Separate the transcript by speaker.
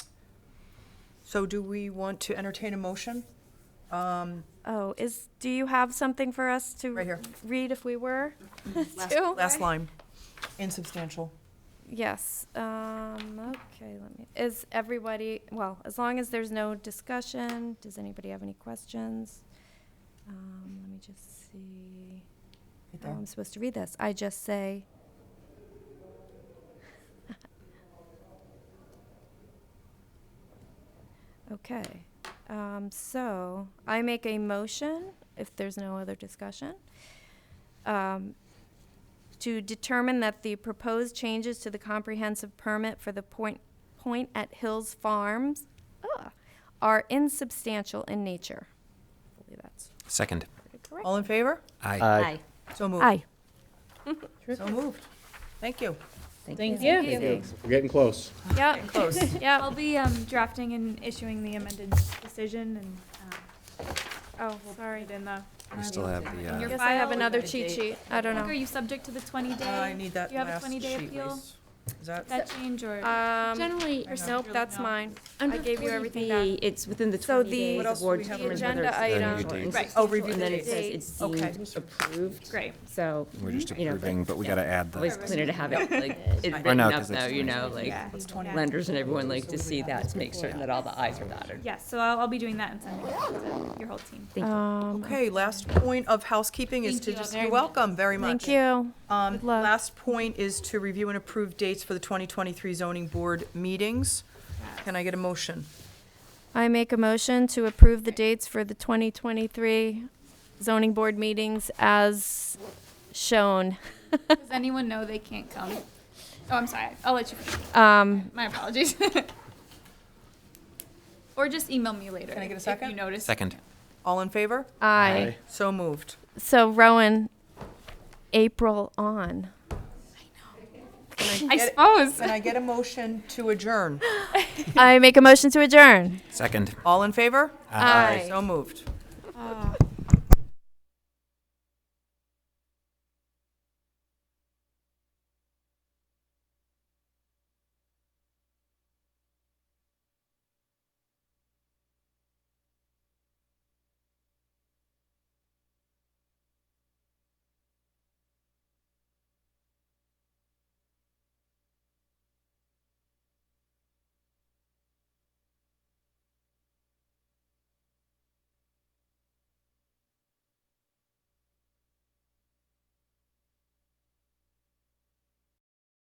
Speaker 1: So do we want to entertain a motion? Um,
Speaker 2: Oh, is, do you have something for us to?
Speaker 1: Right here. Mm-hmm.
Speaker 2: Read if we were?
Speaker 3: Last-
Speaker 2: to?
Speaker 1: Last line, insubstantial.
Speaker 2: Yes, um, okay, let me, is everybody, well, as long as there's no discussion, does anybody have any questions? Um, let me just see,
Speaker 1: Right
Speaker 2: how
Speaker 1: there.
Speaker 2: I'm supposed to read this. I just say. Okay, um, so I make a motion, if there's no other discussion, um, to determine that the proposed changes to the comprehensive permit for the point, point at Hills Farms ugh, are insubstantial in nature. I believe that's
Speaker 4: Second.
Speaker 2: pretty correct.
Speaker 1: All in favor?
Speaker 4: Aye.
Speaker 5: Uh,
Speaker 3: Aye.
Speaker 1: So moved.
Speaker 2: Aye.
Speaker 1: So moved. Thank you.
Speaker 6: Thank you.
Speaker 5: We're getting close.
Speaker 2: Yep.
Speaker 1: Close.
Speaker 2: Yep.
Speaker 6: I'll be um, drafting and issuing the amended decision and
Speaker 2: Oh,
Speaker 6: um, we'll uh, put
Speaker 2: sorry.
Speaker 6: it in the.
Speaker 4: We still have the,
Speaker 6: In
Speaker 4: uh,
Speaker 6: your
Speaker 2: Guess I have
Speaker 6: file.
Speaker 2: another cheat sheet. I don't
Speaker 6: Nick, Are
Speaker 2: know.
Speaker 6: you subject to the twenty day?
Speaker 1: Uh, I need that
Speaker 6: Do you have a
Speaker 1: last
Speaker 6: twenty day
Speaker 1: sheet,
Speaker 6: appeal?
Speaker 1: please. Is that?
Speaker 6: That change or?
Speaker 2: Um,
Speaker 3: Generally,
Speaker 6: or
Speaker 2: nope,
Speaker 6: something?
Speaker 2: that's
Speaker 6: No.
Speaker 2: mine. I
Speaker 3: under
Speaker 2: gave you everything
Speaker 3: 40B, It's within the
Speaker 2: So
Speaker 3: 20
Speaker 2: the-
Speaker 3: days
Speaker 2: What
Speaker 1: else
Speaker 3: of
Speaker 1: do
Speaker 3: board
Speaker 1: we have
Speaker 3: determining
Speaker 2: under
Speaker 3: whether it's
Speaker 2: the agenda
Speaker 3: substantial
Speaker 4: item?
Speaker 3: or
Speaker 6: Right.
Speaker 1: Oh, review
Speaker 3: And
Speaker 1: the
Speaker 3: then it
Speaker 1: dates.
Speaker 3: says it's
Speaker 1: Okay.
Speaker 3: deemed approved.
Speaker 6: Great.
Speaker 3: So.
Speaker 4: We're just
Speaker 3: you know,
Speaker 4: approving, but we
Speaker 3: yeah.
Speaker 4: gotta add
Speaker 3: Always
Speaker 4: the,
Speaker 3: cleaner to have it like it
Speaker 4: Or
Speaker 3: written
Speaker 4: no,
Speaker 3: up
Speaker 4: 'cause it's
Speaker 3: though, you know,
Speaker 4: 20.
Speaker 3: like
Speaker 6: Yeah. Yeah.
Speaker 3: lenders and everyone like to see that to make certain that all the i's are dotted.
Speaker 6: Yes, so I'll, I'll be doing that and sending it to your whole team.
Speaker 3: Thank you.
Speaker 2: um,
Speaker 1: Okay, last point of housekeeping is
Speaker 3: Thank
Speaker 1: to
Speaker 3: you all
Speaker 1: just,
Speaker 3: very
Speaker 1: you're welcome very much.
Speaker 2: Thank you.
Speaker 1: Um,
Speaker 2: Good luck.
Speaker 1: last point is to review and approve dates for the 2023 zoning board meetings. Can I get a motion?
Speaker 2: I make a motion to approve the dates for the 2023 zoning board meetings as shown.
Speaker 6: Does anyone know they can't come? Oh, I'm sorry. I'll let you.
Speaker 2: Um,
Speaker 6: My apologies. Or just email me later.
Speaker 1: Can I get a
Speaker 6: if
Speaker 1: second?
Speaker 6: you notice.
Speaker 4: second.
Speaker 1: All in favor?
Speaker 2: I,
Speaker 1: So moved.
Speaker 2: so Rowan, April on.
Speaker 6: I suppose.
Speaker 1: Can I get a motion to adjourn?
Speaker 2: I make a motion to adjourn.
Speaker 4: Second.
Speaker 1: All in favor?
Speaker 2: Aye.
Speaker 1: So moved.
Speaker 2: Oh,